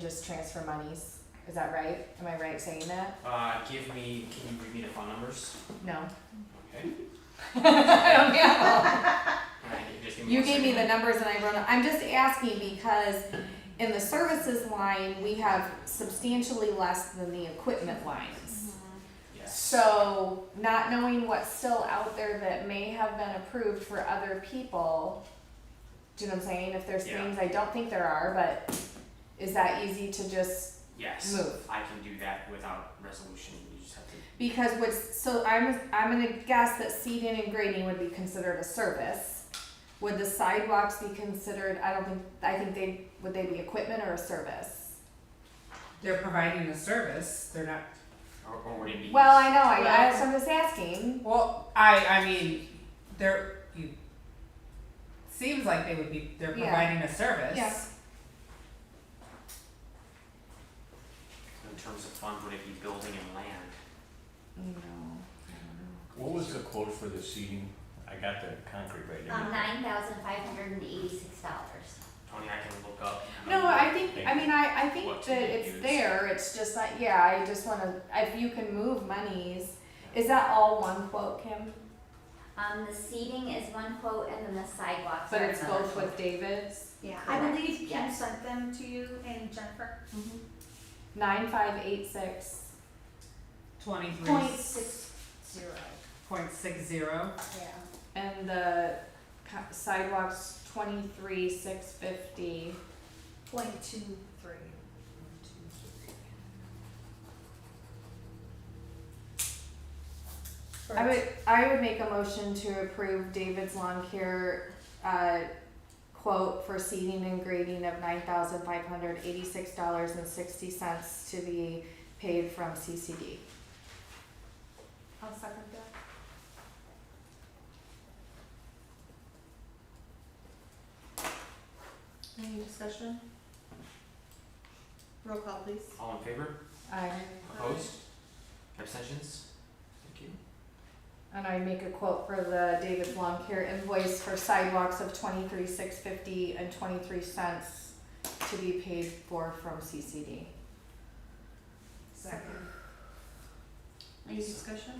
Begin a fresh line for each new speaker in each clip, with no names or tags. just transfer monies. Is that right? Am I right saying that?
Uh, give me, can you read me the phone numbers?
No.
Okay.
I
Alright, you just give
don't know.
me
You
one
gave me the
second.
numbers and I wrote them. I'm just asking because in the services line, we have substantially less than the equipment lines.
Yes.
So not knowing what's still out there that may have been approved for other people, do you know what I'm saying? If there's
Yeah.
things, I don't think there are, but is that easy to just
Yes.
Move.
I can do that without resolution, you just have to,
Because what's, so I'm, I'm gonna guess that seeding and grading would be considered a service. Would the sidewalks be considered, I don't think, I think they, would they be equipment or a service?
They're providing a service, they're not,
or, or would it be?
Well, I know, I, I,
Well-
so I'm just asking,
well, I, I mean, they're, you, seems like they would be, they're
Yeah.
providing a service.
Yeah.
In terms of funds, would it be building and land? Mm,
you know,
What was the quote for the seating? I got the concrete right there.
Um, nine thousand five hundred and eighty-six dollars.
Tony, I can look up.
No, I think, I mean, I, I think
What
that
do you
it's
use?
there, it's just like, yeah, I just wanna, if you can move monies, is that all one quote, Kim?
Um, the seating is one quote and then the sidewalks
But
are
it's
another
both
quote.
with David's?
Yeah.
I
correct.
believe Kim
Yes.
sent them to you and Jennifer.
Nine five eight six
Twenty-three.
point six
Zero,
Point six zero,
yeah.
And the co- sidewalks twenty-three, six fifty.
Point two three.
I would, I would make a motion to approve David's Lawn Care, uh, quote for seeding and grading of nine thousand five hundred eighty-six dollars and sixty cents to be paid from CCD. I'll second that.
Any discussion? Roll call please.
All in favor?
Aye.
Opposed? Abstentions? Thank you.
And I make a quote for the David Lawn Care invoice for sidewalks of twenty-three, six fifty and twenty-three cents to be paid for from CCD.
Second. Any discussion?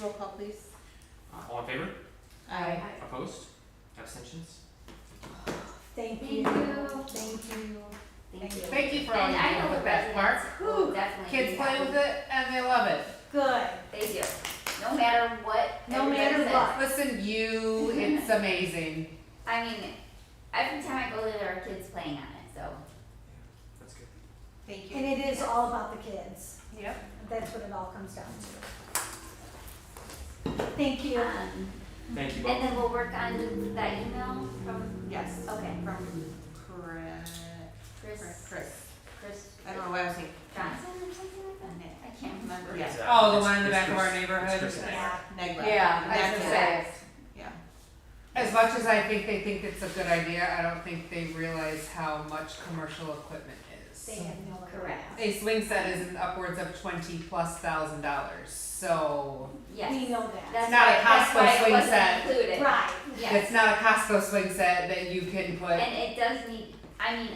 Roll call please.
Uh, all in favor?
Aye.
Opposed? Abstentions?
Thank
you.
Thank you.
Thank you.
thank you for all
And
you
I
do
know the
with that
residents
park.
will definitely
Kids
be
play
happy.
with it and they love it.
Good.
They do, no matter what.
No
everybody
matter
says.
what.
Listen, you, it's amazing.
I mean, every time I go there, there are kids playing on it, so.
That's good.
Thank
And it is all about the kids.
Yep.
That's what it all comes down to. Thank you.
Um,
Thank you
and
both.
then we'll work on that email from,
Yes.
okay,
From Chris,
Chris,
Chris,
Chris
I don't know why I was thinking,
Johnson or something like that? I can't remember.
Yeah.
Exactly.
Oh, the
It's-
one in the
it's
back of our
Chris- it's
neighborhood.
Chris and I.
Negla.
Yeah, I was
That's
gonna
it.
say.
Yeah.
As much as I think they think it's a good idea, I don't think they realize how much commercial equipment is.
They have no.
Correct.
A swing set is an upwards of twenty plus thousand dollars, so
Yes,
We know that.
that's
not a
why, that's
Costco
why it
swing set.
wasn't included.
Right.
Yes.
it's not a Costco swing set that you can put.
And it does need, I mean,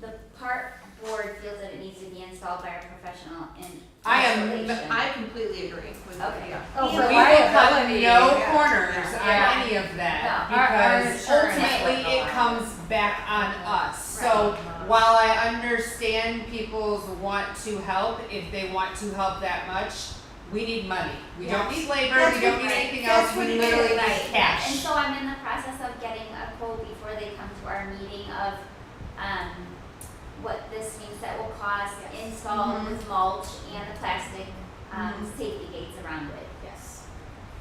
the park board feels that it needs to be installed by a professional in
I am-
isolation.
I completely agree with you,
Okay.
yeah.
Oh,
we
for
will cut
liability.
no
yeah.
corners
Yeah.
on any of
No, our- our
that because
insurance
ultimately
will
it
go
comes back on us. So
Right.
while I understand people's want to help, if they want to help that much, we need money. We don't
Yes.
need labor.
That's
we don't
what-
need anything
that's
else.
what
We
it
literally
is.
need cash.
And so I'm in the process of getting a quote before they come to our meeting of, um, what this means that will cost,
Yes.
install with mulch and the plastic, um, safety gates around it,
Yes.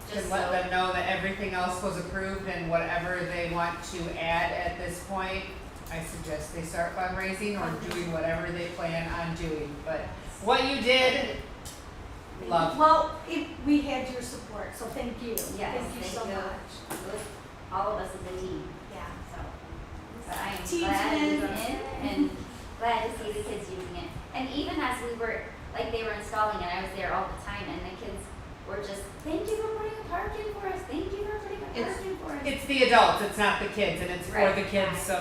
just
Just
so.
let them know that everything else was approved and whatever they want to add at this point, I suggest they start fundraising or doing whatever they plan on doing, but what you did, love.
Well, it, we had your support, so thank you.
Yes,
Thank you
thank
so
you.
much.
It was all of us as a team,
Yeah.
so. But I am
Team
glad
win.
it's in and glad to see the kids using it. And even as we were, like they were installing it, I was there all the time and the kids were just, thank you for putting a park in for us, thank you for putting a we're asking for?
It's the adults, it's not the kids, and it's for
Right.
the kids, so